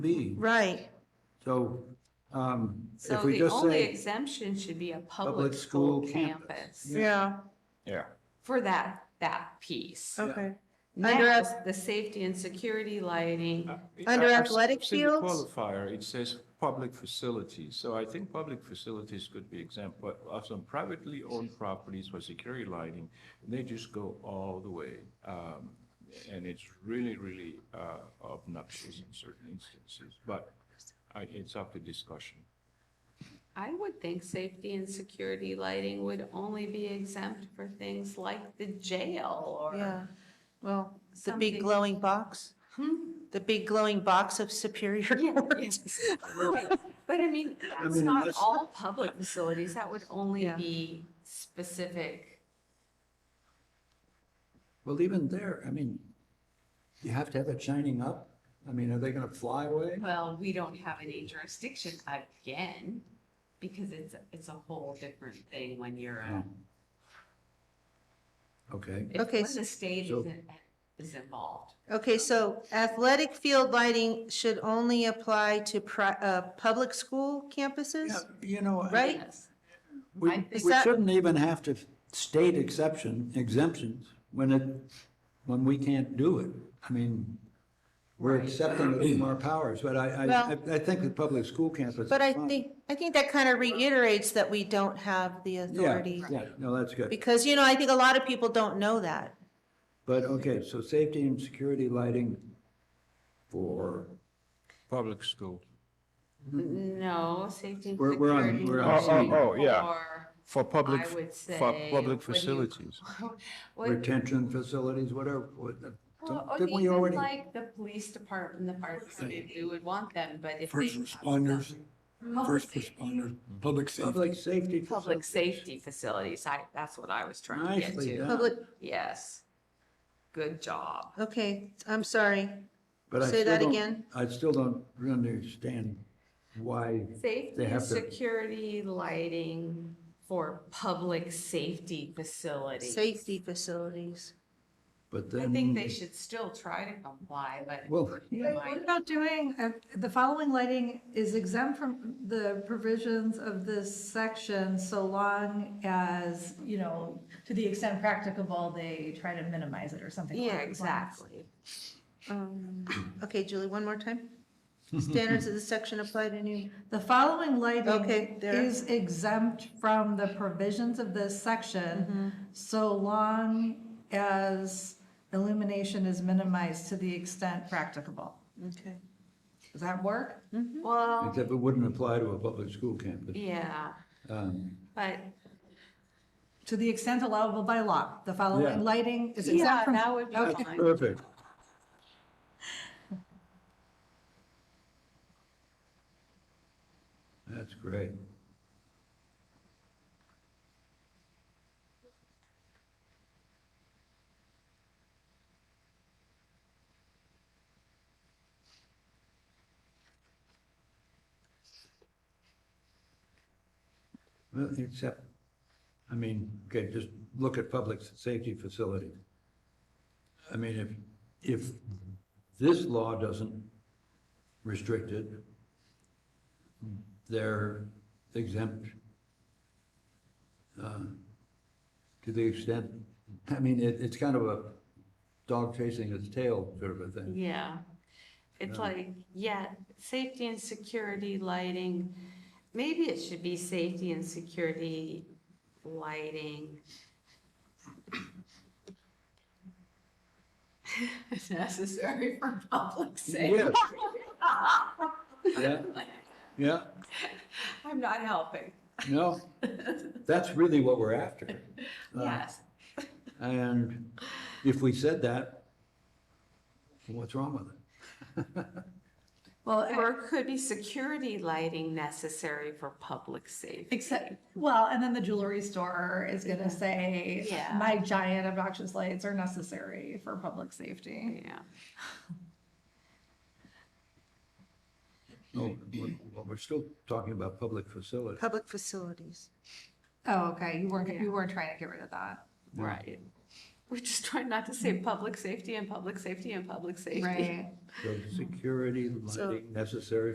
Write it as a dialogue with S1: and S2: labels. S1: meeting.
S2: Right,
S1: So um, if
S3: So
S1: we
S3: the
S1: just say,
S3: only exemption should be a public school campus
S2: yeah,
S4: Yeah.
S3: for that, that piece.
S2: okay. Under
S3: Next, the safety and security lighting,
S2: Under
S4: I- I've
S2: athletic
S4: seen the
S2: fields?
S4: Qualifier, it says public facilities, so I think public facilities could be exempt, but of some privately owned properties for security lighting, they just go all the way. Um, and it's really, really, uh, obnoxious in certain instances, but I, it's up to discussion.
S3: I would think safety and security lighting would only be exempt for things like the jail or.
S2: Yeah, well, the
S3: Something-
S2: big glowing box,
S3: Hmm?
S2: the big glowing box of Superior.
S3: Yes. Right. But I mean, that's
S1: mean,
S3: not
S1: unless-
S3: all public facilities. That would only
S2: Yeah.
S3: be specific.
S1: well, even there, I mean, you have to have it shining up. I mean, are they going to fly away?
S3: Well, we don't have any jurisdiction again, because it's, it's a whole different thing when you're a.
S1: Okay,
S3: if-
S2: Okay,
S3: When the state
S1: so-
S3: is, in- is involved.
S2: Okay, so athletic field lighting should only apply to pri, uh, public school
S1: Yeah,
S2: campuses?
S1: you know. I-
S2: Right?
S3: Yes.
S1: We,
S3: I think
S1: we
S2: that-
S1: shouldn't even have to state exception, exemptions, when it, when we can't do it. I mean, we're accepting it from our powers, but I, I,
S2: Well-
S1: I think the public school campus.
S2: But I
S1: is fine.
S2: think, I think that kind of reiterates that we don't have the
S1: Yeah,
S2: authority.
S1: yeah, no, that's good.
S2: Because, you know, I think a lot of people don't know that.
S1: But, okay, so safety and security lighting for,
S4: Public school.
S3: No, safety and
S1: We're- we're on-
S3: security.
S1: we're
S4: on- Oh,
S3: lighting
S4: oh, oh, yeah.
S3: for-
S4: For public,
S3: I would say.
S4: for
S3: when you-
S4: public facilities.
S3: What, Oh,
S1: retention facilities, whatever. what-
S3: well, or
S1: Didn't we
S3: even
S1: already,
S3: like the police department, the fire department, we would want them, but if.
S5: First
S3: they have
S5: responders,
S3: something-
S5: First responders, public safety.
S1: public safety?
S3: Public
S1: facilities?
S3: safety facilities, I, that's what I was trying to get
S1: Nicely
S3: to.
S1: done.
S2: Public,
S3: Yes. Good job.
S2: okay, I'm sorry.
S1: But I
S2: Say
S1: still
S2: that
S1: don't-
S2: again.
S1: I still don't understand why,
S3: Safety
S1: They
S3: and
S1: have to-
S3: security lighting for public safety facilities.
S2: Safety facilities.
S1: but
S3: I
S1: then.
S3: think they should still try to comply, but.
S1: Well,
S6: Wait, What about doing, uh, the following lighting is exempt from the provisions of this section so long as, you know, to the extent practicable, they try to minimize it or something. along
S3: Yeah,
S6: those lines.
S3: exactly.
S2: Um, Okay, Julie, one more time. Standards of the section apply to new,
S6: The following
S2: Okay,
S6: lighting
S2: there.
S6: is exempt from the provisions of this
S3: Mm-hmm.
S6: section so long as illumination is minimized to the extent practicable.
S2: okay.
S6: Does that work?
S3: Well,
S1: except it wouldn't apply to a public school campus.
S3: yeah,
S1: Um,
S3: but
S6: To the extent allowable by law, the following
S1: Yeah.
S6: lighting is exempt
S3: yeah,
S6: from.
S3: that would be
S6: Okay.
S3: fine.
S1: Perfect. That's great. Well, except, I mean, okay, just look at public safety facilities. I mean, if, if this law doesn't restrict it, they're exempt uh, to the extent, I mean, it, it's kind of a dog chasing its tail sort of a thing.
S3: Yeah. It's like, yeah, safety and security lighting. Maybe it should be safety and security lighting. Necessary for public safety.
S1: Yeah, yeah,
S3: I'm not helping.
S1: no, that's really what we're after. Uh,
S3: Yes.
S1: And if we said that, what's wrong with it?
S6: Well,
S3: Or it could be security lighting necessary for public safety.
S6: Except, well, and then the jewelry store is gonna say,
S3: Yeah.
S6: my giant obnoxious lights are necessary for public safety.
S3: Yeah.
S1: Oh, we're- well, we're still talking about public facilities.
S2: Public facilities.
S6: Oh, okay, you weren't,
S3: Yeah.
S6: you weren't trying to get rid of that.
S3: Right. We're just trying not to say public safety and public safety and public safety.
S6: Right.
S1: So security,
S2: So-
S1: lighting necessary